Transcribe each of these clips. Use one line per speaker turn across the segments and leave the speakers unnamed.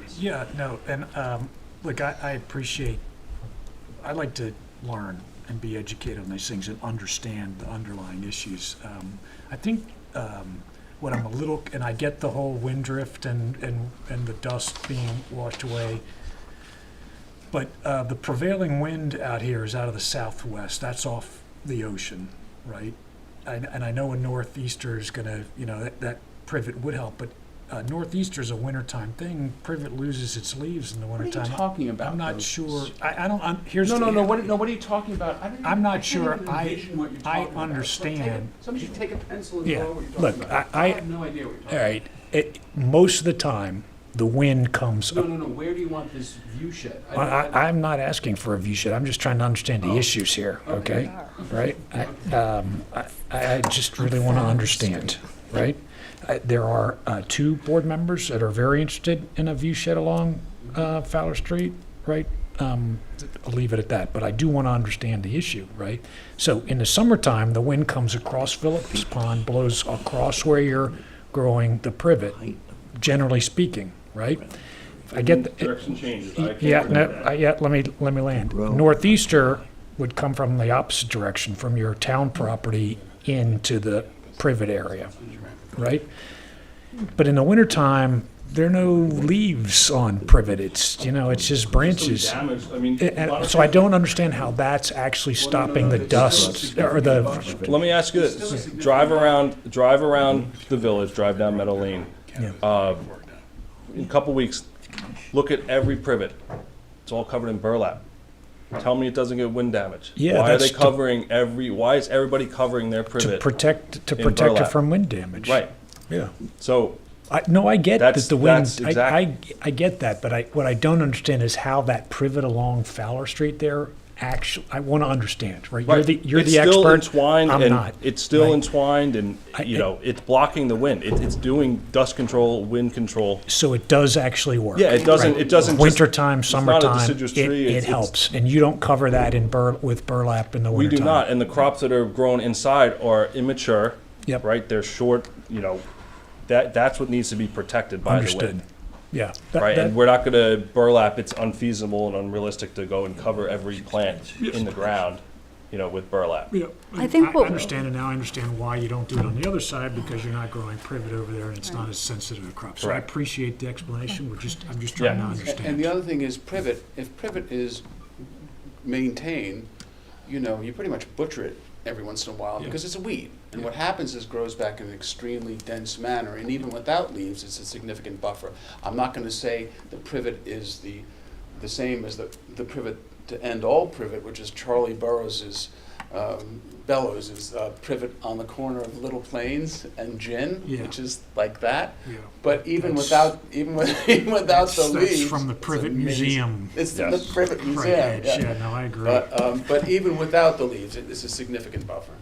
yes.
Yeah, no, and, um, look, I, I appreciate, I like to learn and be educated on these things and understand the underlying issues. Um, I think, um, what I'm a little, and I get the whole wind drift and, and, and the dust being washed away. But, uh, the prevailing wind out here is out of the southwest, that's off the ocean, right? And, and I know a northeaster is gonna, you know, that, that privet would help, but uh, northeaster's a wintertime thing. Privet loses its leaves in the
What are you
wintertime.
talking about?
I'm not
though?
sure. I, I don't. I'm, here's
No, no,
the-
no, what, no, what are you talking about? I don't even-
I'm not
I can't
sure.
even
I-
envision what you're
I
talking about.
understand.
Take a- Somebody should take a pencil and
Yeah,
draw what you're
look,
talking about.
I- I-
have no idea what you're talking
All
about.
right. It, most of the time, the wind comes.
No,
up.
no, no, where do you want this view shed?
I, I, I'm not asking for a view shed. I'm just trying to understand the
Oh.
issues here.
Okay.
Okay. Right. I, um, I, I I just really want to understand. Right. I, there are uh, two board members that are very interested in a view shed along uh, Fowler Street, right? Um, I'll leave it at that, but I do want to understand the issue, right? So in the summertime, the wind comes across Phillips Pond, blows across where you're growing the privet, generally speaking, right? I get, the-
Direction changes. I can't
yeah,
do
no,
that.
uh, yeah, let me, let me land. Northeaster would come from the opposite direction, from your town property into the privet area, right? But in the wintertime, there are no leaves on privet, it's, you know, it's just branches.
Some damage, I mean.
A-
a lot
and
of
So I
people-
don't understand how that's actually
no,
stopping the
it's still
dust, or the,
Let me ask you
Still a
this,
significant-
drive around, drive around the village, drive down Meadow Lane.
Yeah.
Uh, In a couple weeks, look at every privet. It's all covered in burlap. Tell me it doesn't get wind damage.
Yeah,
Why are they
that's to-
covering every, why is everybody covering their
to
privet?
protect, to
In
protect it
burlap.
from wind damage.
Right,
Yeah.
so
I, no, I get that
That's-
the wind.
that's
I,
exact-
I, I get that, but I, what I don't understand is how that privet along Fowler Street there actually. I want to understand, right? You're
Right.
the you're
it's
the
still
expert.
Entwined
I'm
and
not.
It's still
right?
entwined, and
I-
you know, it's blocking the wind. It, it's doing dust control, wind control.
so it does actually work.
Yeah, it doesn't- it doesn't just-
Wintertime,
it's not a
summertime,
deciduous
it,
tree,
it
it's- it's-
helps, and you don't cover that in bur, with burlap in the
We
wintertime.
do not, and the crops that are grown inside are immature.
Yep.
Right, they're short. You know, that that's what needs to be protected by the
Understood.
wind.
Yeah. That-
Right,
that-
and we're not going to burlap. It's unfeasible and unrealistic to go and cover every plant in the ground, you know, with burlap.
Yeah,
I think what-
understand it now, I understand why you don't do it on the other side, because you're not growing privet over there, and it's not as sensitive a crop. So I
Correct.
appreciate the explanation, we're just, I'm just
Yeah.
trying to
And the
understand.
other thing is privet, if privet is maintained, you know, you pretty much butcher it every once in a while because it's a weed. And what happens is grows back in an extremely dense manner, and even without leaves, it's a significant buffer. I'm not gonna say the privet is the, the same as the, the privet to end all privet, which is Charlie Burrows's, um, Bellows is, uh, privet on the corner of Little Plains and Gin,
Yeah.
which is like that.
Yeah.
But even
That's-
without, even with, even without the
That's- that's
leaves.
from the
it's
Privet
amazing.
Museum.
It's from
Yes.
the Privet
Right,
Museum,
Edge,
yeah.
yeah, no, I agree.
But, um, but even without the leaves, it- it's a significant buffer.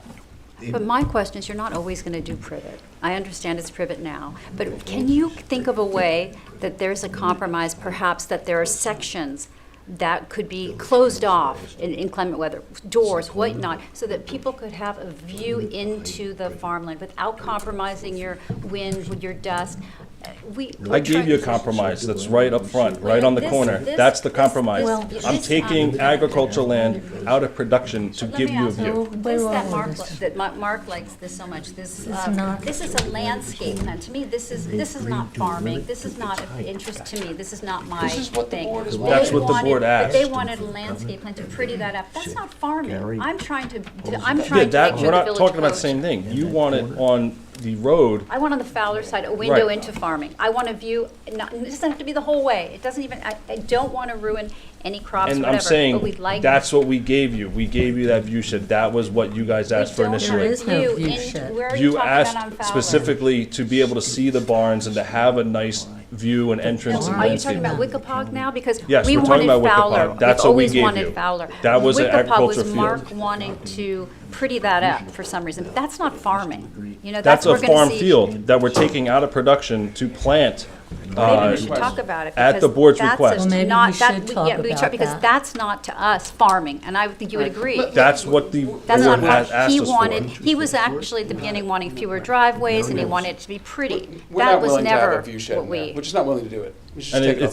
But my question is, you're not always going to do privet. I understand it's privet now, but can you think of a way that there's a compromise, perhaps that there are sections that could be closed off in inclement weather, doors, whatnot, so that people could have a view into the farmland without compromising your wind, with your dust? Uh, We.
I gave you a compromise that's right up front, right on the
This-
corner.
this-
That's the
this-
compromise.
this-
I'm
this,
taking
um,
agricultural land out of production to
Let
give
me
you a
ask
view.
This that Mark, li- that Ma- Mark likes this so much, this, uh, this is a landscape plan, to me, this is, this is not farming, this is not of interest to me, this is not my
This is what the
thing.
board is
They
wanting. That's
what the
wanted-
board
but
asked.
They wanted a landscape plan to pretty that up, that's not
Gary
farming, I'm trying to, to- I'm
Yeah,
trying to
that,
picture
we're
the
not
village
talking about the
approach.
same thing. You want it on the road
I want on the Fowler side, a window
Right.
into farming, I want a view, not, it doesn't have to be the whole way, it doesn't even, I, I don't want to ruin any crops,
And
whatever,
I'm
but
saying,
we'd like.
that's what we gave you. We gave you that view shed. That was what you guys asked for initially.
We don't have
view
view into,
shed.
where are you
You
talking about on
asked
Fowler?
specifically to be able to see the barns and to have a nice view and entrance and
Are you talking
landscape.
about Wickapog now? Because
Yes,
we
we're talking
wanted
about Wickapog.
Fowler. We've
That's what we
always
gave
wanted
you.
Fowler.
That was an agriculture field.
Wickapog was Mark wanting to pretty that up for some reason. But that's not farming. You know, that's
That's a
what we're going
farm
to see.
field that we're taking out of production to plant.
Maybe
uh,
we should talk about it.
at the
because
board's
that's a-
request. Well,
maybe we
not- that-
should
we-
talk
yeah, we
about
should, Because
that.
that's not to us farming, and I would think you would agree.
That's what the board
That's not
has
farming. He
asked
wanted,
us for.
he was actually at the beginning wanting fewer driveways, and he wanted it to be pretty.
We're
That
not
was
willing to have
never
a view shed
what
in there.
we.
We're just not willing to do it. We should just
And
take
it-
it off